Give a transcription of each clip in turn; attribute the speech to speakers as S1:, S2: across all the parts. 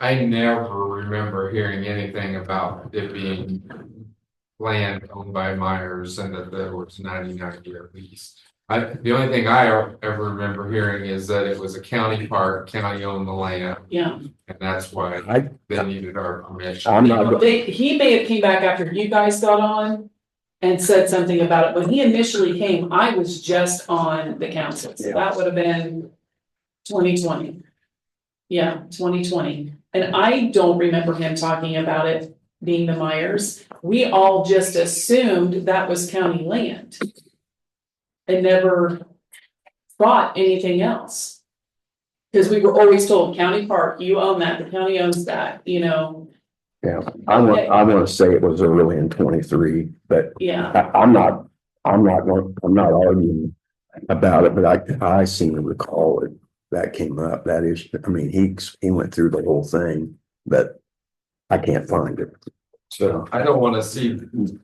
S1: I never remember hearing anything about it being. Land owned by Myers and that there was ninety-nine year lease. I, the only thing I ever remember hearing is that it was a county park, county owned the land,
S2: yeah.
S1: and that's why
S3: I,
S1: they needed our permission.
S3: I'm not-
S2: Well, They, he may have came back after you guys got on and said something about it. When he initially came, I was just on the council, so
S3: Yeah.
S2: that would have been twenty twenty. Yeah, twenty twenty. And I don't remember him talking about it being the Myers. We all just assumed that was county land. And never thought anything else. Cause we were always told county park, you own that, the county owns that, you know,
S3: yeah, I want, I want to say it was early in twenty-three, but
S2: yeah.
S3: I, I'm not, I'm not, going. I'm not arguing about it, but I, I seem to recall it. That came up, that is, I mean, he, he went through the whole thing, but I can't find it. So,
S1: I don't wanna see. The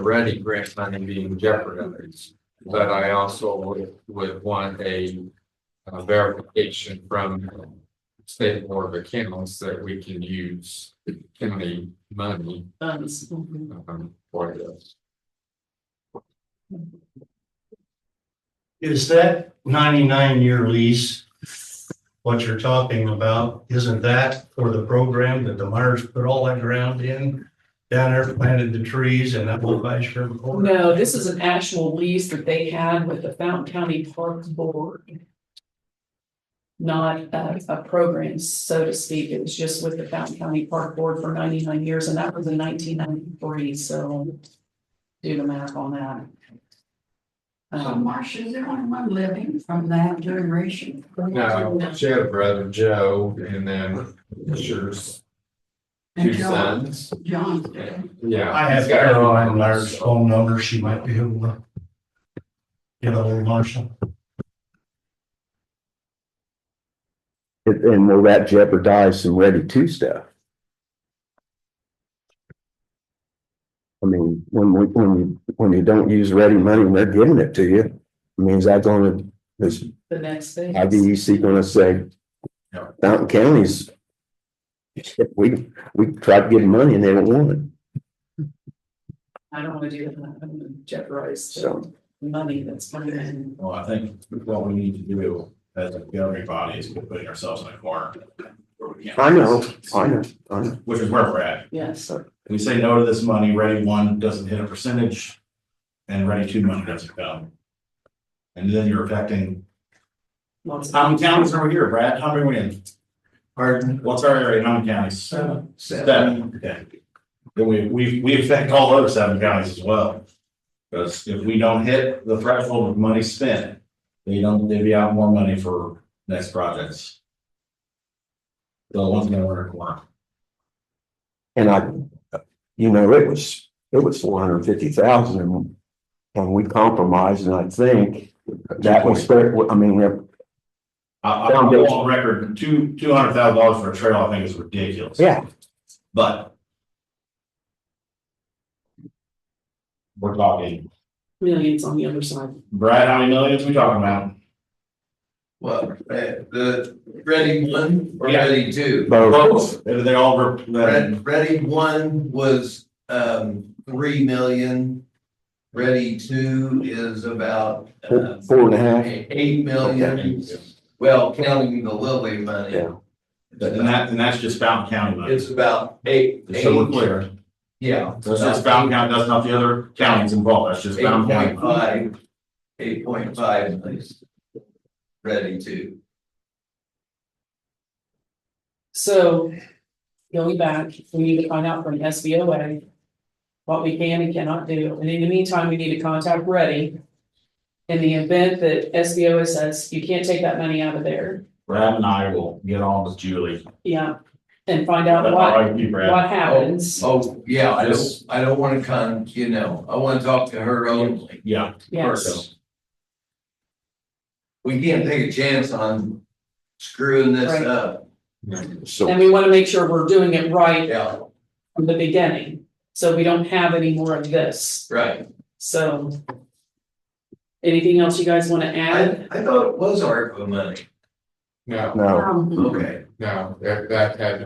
S1: ready grant money being jeopardized, but I also would, would want a. uh, verification from. State Board of Accounts that we can use county money,
S2: funds.
S1: um, for this.
S4: Is that ninety-nine year lease, what you're talking about, isn't that for the program that the Myers put all that ground in? Down there planted the trees and that whole vice versa?
S2: No, this is an actual lease that they had with the Fountain County Parks Board. Not a, a program, so to speak. It was just with the Fountain County Park Board for ninety-nine years, and that was in nineteen ninety-three, so do the math on that.
S5: So
S2: Um,
S5: Uh, Marcia, is there anyone living from that generation?
S1: Now, she had a brother, Joe, and then Fisher's
S5: And
S1: two
S5: John-
S1: sons,
S5: John's
S1: Yeah.
S5: dead.
S1: yeah.
S4: I have
S1: he's got her
S4: Caroline
S1: own-
S4: Myers' phone number, she might be able to get a little Marshall.
S3: and- and will that jeopardize some ready to stuff? I mean, when we, when you, when you don't use ready money and they're giving it to you, I mean, is that gonna, is
S2: the next thing.
S3: IBEC gonna say?
S1: No.
S3: Fountain County's. We, we tried to get money and they don't want it,
S2: I don't wanna do that. I don't wanna jeopardize the
S3: so.
S2: money that's coming in.
S6: Well, I think what we need to do as a governing body is we're putting ourselves in a corner. where we can't-
S3: I know, I know, I know.
S6: Which is where we're at.
S2: Yes,
S6: We say no to this money, ready one doesn't hit a percentage and ready two money doesn't come. And then you're affecting,
S2: lots of-
S6: how many counties are we here, Brad? How many we in?
S4: Pardon?
S6: What's our area? How many counties?
S4: Seven.
S6: Seven, okay. Then we, we, we affect all those seven counties as well. Because if we don't hit the threshold of money spent, they don't, they'd be out more money for next projects. So once again, we're in a corner.
S3: And I, you know, it was, it was four hundred and fifty thousand and, and we compromised and I think that was fair, I mean, we're-
S6: I, I'm I'm on record, two, two hundred thousand dollars for a trail, I think is ridiculous.
S3: yeah,
S6: But we're talking,
S2: millions on the other side.
S6: Brad, how many millions we talking about?
S7: Well, the ready one or
S6: Yeah.
S7: ready two?
S3: Both.
S6: Are They all, were-
S7: Ready, ready one was um three million. Ready two is about uh,
S3: four four and a half,
S7: eight million, well, counting the Lilly money.
S3: yeah.
S6: and that, and that's just Fountain County money.
S7: It's about eight,
S6: Just So we're
S7: eight,
S6: clear,
S7: yeah.
S6: that's just Fountain County, that's not the other counties involved, that's just
S7: Eight
S6: Fountain County.
S7: point five, eight point five, please. Ready two.
S2: So going back, we need to find out from SBOA what we can and cannot do. And in the meantime, we need to contact Ready. In the event that SBOA says you can't take that money out of there,
S6: Brad and I will get on with Julie.
S2: yeah, and find out
S6: That's
S2: what
S6: all right, you, Brad.
S2: what happens.
S7: Oh, yeah, I don't,
S6: Just-
S7: I don't wanna con, you know, I wanna talk to her only.
S6: Yeah.
S2: Yes,
S7: We can't take a chance on screwing this
S2: Right.
S7: up.
S3: So,
S2: and we want to make sure we're doing it right
S7: Yeah,
S2: from the beginning, so we don't have any more of this.
S7: right.
S2: So anything else you guys want to add?
S7: I, I thought it was ARPA money.
S1: No,
S3: no.
S5: Um,
S7: Okay.
S1: no, that, that had to